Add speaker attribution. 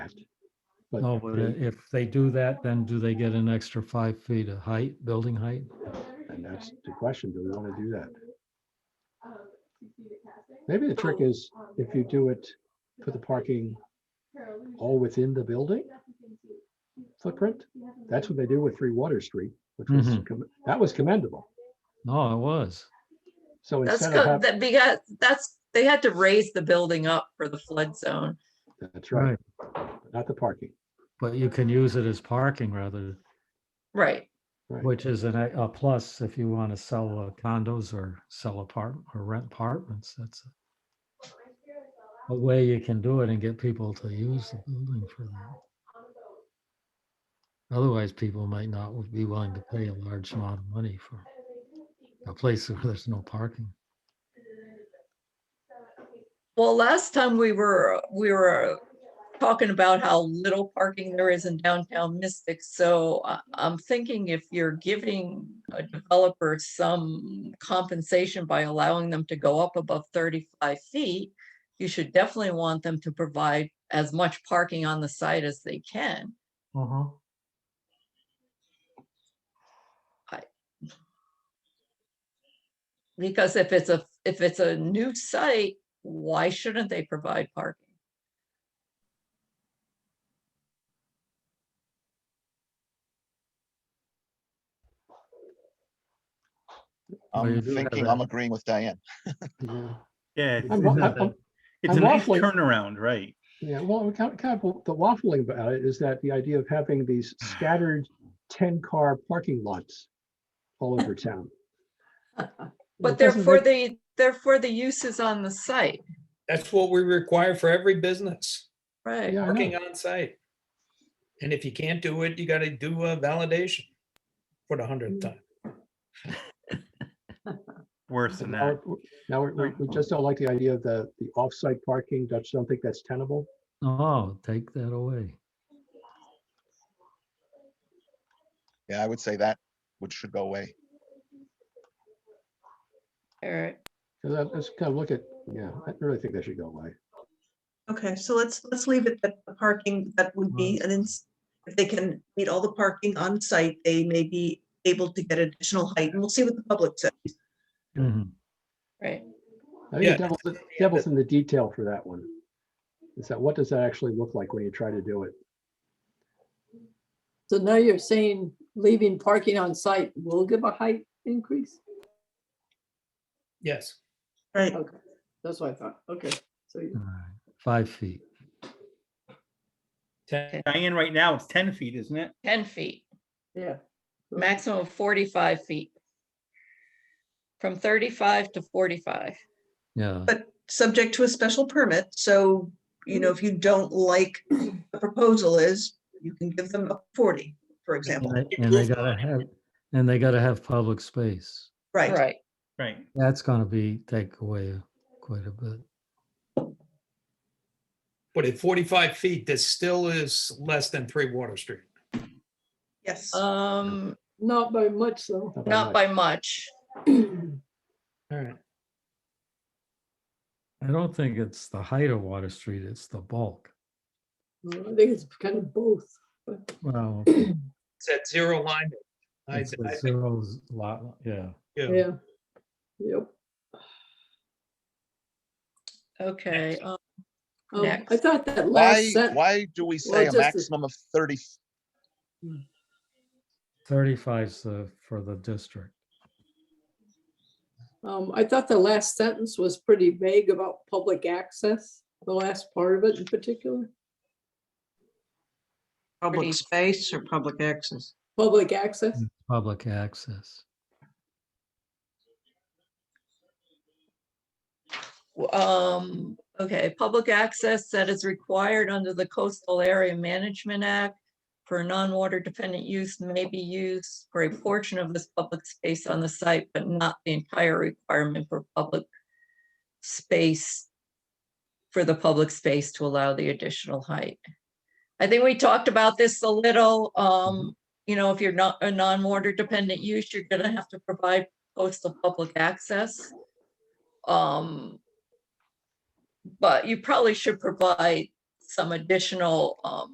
Speaker 1: But
Speaker 2: No, but
Speaker 1: it-
Speaker 2: i- if they do that, then do they get an extra five feet of height, building height?
Speaker 1: And that's the question, do we want to do that? Maybe the trick is if you do it for the parking all within the building footprint, that's what they do with Three Water Street, which was,
Speaker 2: Mhm.
Speaker 1: comm- that was commendable.
Speaker 2: No, it was.
Speaker 1: So
Speaker 3: That's
Speaker 1: instead of
Speaker 3: good,
Speaker 1: having,
Speaker 3: that, because that's, they had to raise the building up for the flood zone.
Speaker 1: that's right, not the parking,
Speaker 2: But you can use it as parking rather,
Speaker 3: Right,
Speaker 1: right?
Speaker 2: which is an a a plus if you want to sell uh, condos or sell apartment or rent apartments. That's a- a way you can do it and get people to use the building for that. Otherwise, people might not would be willing to pay a large amount of money for a place where there's no parking.
Speaker 3: well, last time we were, we were talking about how little parking there is in downtown Mystic, so I, I'm thinking if you're giving a developer some compensation by allowing them to go up above thirty-five feet, you should definitely want them to provide as much parking on the site as they can.
Speaker 2: Uh-huh.
Speaker 3: Because if it's a, if it's a new site, why shouldn't they provide parking?
Speaker 2: Well, you do
Speaker 4: I'm
Speaker 2: have
Speaker 4: thinking,
Speaker 2: that.
Speaker 4: I'm agreeing with Diane.
Speaker 1: Yeah.
Speaker 5: Yeah, it's,
Speaker 1: I'm
Speaker 5: it's,
Speaker 1: wa-
Speaker 5: a-
Speaker 1: I'm-
Speaker 5: it's
Speaker 1: I'm
Speaker 5: a nice
Speaker 1: waffling.
Speaker 5: turnaround, right?
Speaker 1: Yeah, well, we kind of, kind of, the waffling about it is that the idea of having these scattered ten-car parking lots all over town.
Speaker 3: But
Speaker 1: It
Speaker 3: they're
Speaker 1: doesn't
Speaker 3: for
Speaker 1: make-
Speaker 3: the, they're for the uses on the site,
Speaker 6: That's what we require for every business,
Speaker 3: right?
Speaker 1: Yeah, I know.
Speaker 6: working on site. And if you can't do it, you gotta do a validation for the hundredth time.
Speaker 5: Worse than
Speaker 1: Now,
Speaker 5: that.
Speaker 1: we're- now we're- we, we just don't like the idea of the, the off-site parking. Dutch don't think that's tenable.
Speaker 2: Oh, take that away.
Speaker 4: Yeah, I would say that, which should go away.
Speaker 3: Alright,
Speaker 1: Cause I, let's kind of look at, yeah, I really think that should go away.
Speaker 7: Okay, so let's, let's leave it that the parking, that would be, and then if they can meet all the parking on site, they may be able to get additional height, and we'll see what the public says.
Speaker 2: Mhm.
Speaker 3: right,
Speaker 1: I think
Speaker 6: Yeah.
Speaker 1: the devil's, the devil's in the detail for that one. Is that, what does that actually look like when you try to do it?
Speaker 8: So now you're saying leaving parking on site will give a height increase?
Speaker 6: Yes,
Speaker 7: Right,
Speaker 8: Okay, that's what I thought. Okay, so you-
Speaker 2: All right. Five feet.
Speaker 6: ten,
Speaker 5: Diane, right now, it's ten feet, isn't it?
Speaker 3: ten feet,
Speaker 8: yeah. so-
Speaker 3: maximum of forty-five feet. From thirty-five to forty-five,
Speaker 2: Yeah.
Speaker 7: but subject to a special permit, so, you know, if you don't like the proposal is, you can give them a forty, for example,
Speaker 2: And they- and they gotta have, and they gotta have public space.
Speaker 7: right?
Speaker 3: right,
Speaker 5: Right.
Speaker 2: That's gonna be, take away quite a bit.
Speaker 6: but at forty-five feet, this still is less than three Water Street.
Speaker 7: Yes,
Speaker 3: um,
Speaker 8: Not by much though.
Speaker 1: Not
Speaker 3: not
Speaker 1: much.
Speaker 3: by much,
Speaker 6: All right,
Speaker 2: I don't think it's the height of Water Street, it's the bulk.
Speaker 8: I think it's kind of both. but-
Speaker 2: Well,
Speaker 6: it's at zero line. I, I
Speaker 2: it's the
Speaker 6: think,
Speaker 2: zeros lot, yeah.
Speaker 6: yeah,
Speaker 8: Yeah. Yep.
Speaker 3: okay, um,
Speaker 8: Um, I
Speaker 3: Next.
Speaker 8: thought that
Speaker 4: Why,
Speaker 8: last sentence,
Speaker 4: why do we
Speaker 8: well,
Speaker 4: say a
Speaker 8: just a-
Speaker 4: maximum of thirty?
Speaker 2: Thirty-five's the, for the district.
Speaker 8: um, I thought the last sentence was pretty vague about public access, the last part of it in particular.
Speaker 3: Pretty-
Speaker 9: Public space or public access?
Speaker 8: Public access,
Speaker 2: Mm. Public access.
Speaker 3: w- um, okay, public access that is required under the Coastal Area Management Act for non-water dependent use may be used for a portion of this public space on the site, but not the entire requirement for public space, for the public space to allow the additional height. I think we talked about this a little, um, you know, if you're not a non-water dependent use, you're gonna have to provide coastal public access. Um, but you probably should provide some additional, um,